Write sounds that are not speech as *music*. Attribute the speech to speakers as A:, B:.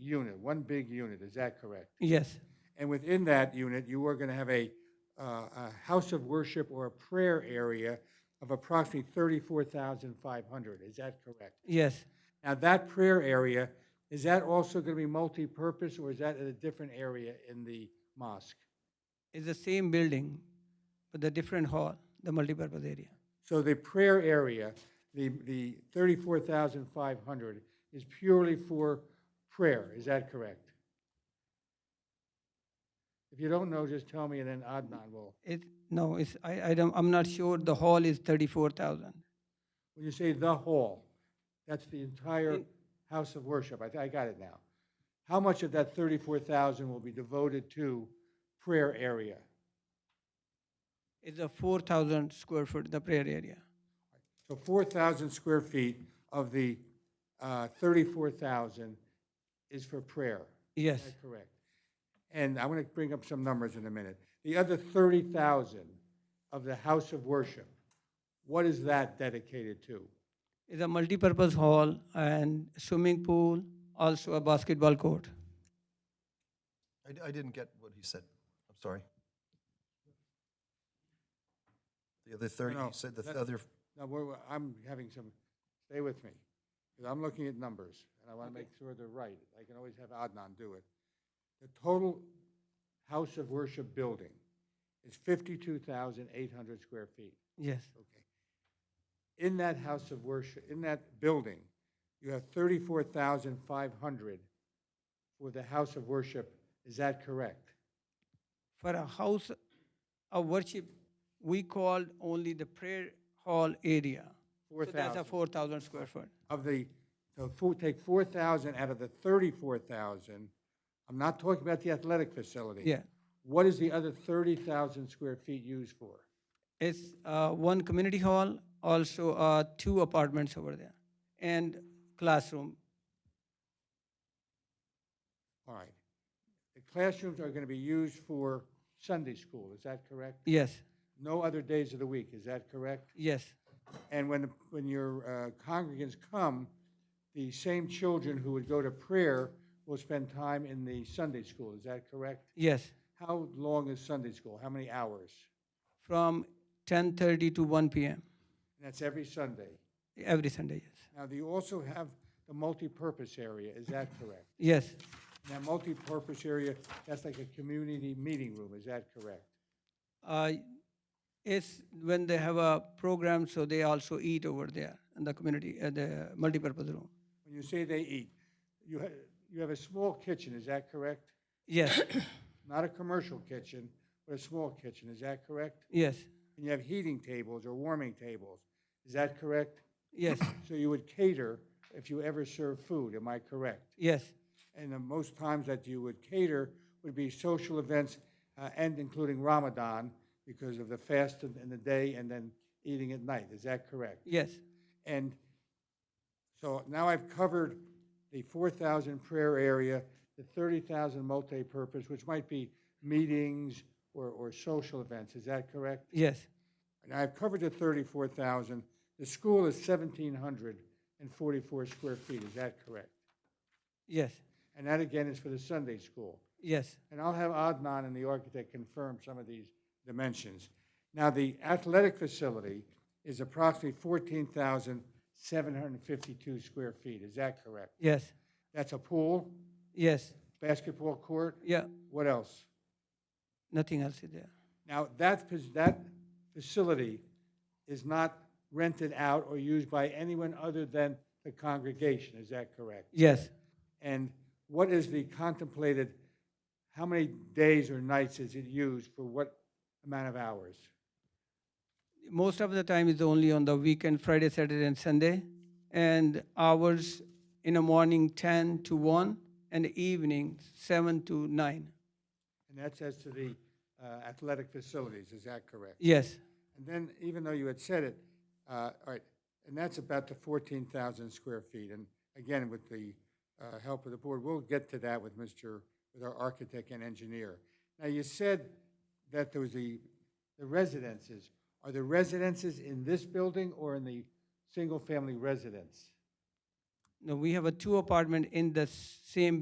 A: unit, one big unit, is that correct?
B: Yes,
A: And within that unit, you are going to have a, uh, a house of worship or a prayer area of approximately 34,500, is that correct?
B: yes.
A: Now, that prayer area, is that also going to be multi-purpose, or is that at a different area in the mosque?
B: It's the same building, but the different hall, the multipurpose area.
A: So the prayer area, the, the 34,500 is purely for prayer, is that correct? If you don't know, just tell me, and then Adnan will.
B: It, no, it's, I, I don't, I'm not sure the hall is thirty-four thousand.
A: When you say the hall, that's the entire
B: In-
A: house of worship. I, I got it now. How much of that 34,000 will be devoted to prayer area?
B: It's a four thousand square foot, the prayer area.
A: So 4,000 square feet of the uh, 34,000 is for prayer.
B: Yes,
A: Is that correct? And I'm going to bring up some numbers in a minute. The other 30,000 of the house of worship, what is that dedicated to?
B: it's a multipurpose hall and swimming pool, also a basketball court.
C: I, d- I didn't get what he said. I'm sorry. The other 30,
A: no,
C: he said the
A: that-
C: other,
A: Now, we're, we're- I'm having some, stay with me, because I'm looking at numbers, and I want to make sure they're right. I can always have Adnan do it. The total house of worship building is 52,800 square feet.
B: Yes,
A: Okay. In that house of worship, in that building, you have 34,500 for the house of worship. Is that correct?
B: for a house of worship, we called only the prayer hall area. So that's
A: 4,000.
B: a four thousand square foot.
A: of the, so four, take four thousand out of the thirty-four thousand. I'm not talking about the athletic facility.
B: Yeah,
A: What is the other thirty thousand square feet used for?
B: it's uh, one community hall, also uh, two apartments over there, and classroom.
A: All right. The classrooms are going to be used for Sunday school, is that correct?
B: Yes,
A: No other days of the week, is that correct?
B: yes,
A: And when, when your uh, congregants come, the same children who would go to prayer will spend time in the Sunday school, is that correct?
B: yes.
A: How long is Sunday school? How many hours?
B: From ten thirty to one p.m.
A: And that's every Sunday.
B: every Sunday.
A: Now, do you also have the multipurpose area, is that correct?
B: Yes, yes.
A: Now, multipurpose area, that's like a community meeting room, is that correct?
B: Uh, it's when they have a program, so they also eat over there in the community, uh, the multipurpose room.
A: When you say they eat, you, ha- you have a small kitchen, is that correct?
B: Yes, *coughs*
A: Not a commercial kitchen, but a small kitchen, is that correct?
B: yes,
A: And you have heating tables or warming tables, is that correct?
B: yes,
A: So you would cater if you ever serve food, am I correct?
B: yes,
A: And the most times that you would cater would be social events uh, and including Ramadan because of the fast in in the day and then eating at night. Is that correct?
B: yes,
A: And so now I've covered the 4,000 prayer area, the 30,000 multi-purpose, which might be meetings or, or social events. Is that correct?
B: yes,
A: And I've covered the 34,000. The school is 1,744 square feet. Is that correct?
B: yes,
A: And that again is for the Sunday school.
B: yes.
A: And I'll have Adnan and the architect confirm some of these dimensions. Now, the athletic facility is approximately 14,752 square feet. Is that correct?
B: Yes,
A: That's a pool,
B: yes,
A: basketball court,
B: yeah,
A: what else?
B: nothing else is there.
A: Now, that, fac- that facility is not rented out or used by anyone other than the congregation. Is that correct?
B: Yes,
A: And what is the contemplated, how many days or nights is it used for what amount of hours?
B: most of the time is only on the weekend, Friday, Saturday, and Sunday, and hours in the morning ten to one, and evening seven to nine.
A: And that's as to the uh, athletic facilities, is that correct?
B: Yes,
A: And then, even though you had said it, uh, all right, and that's about the 14,000 square feet. And again, with the uh, help of the board, we'll get to that with Mr., with our architect and engineer. Now, you said that there was the, the residences. Are the residences in this building or in the single-family residence?
B: no, we have a two apartment in the same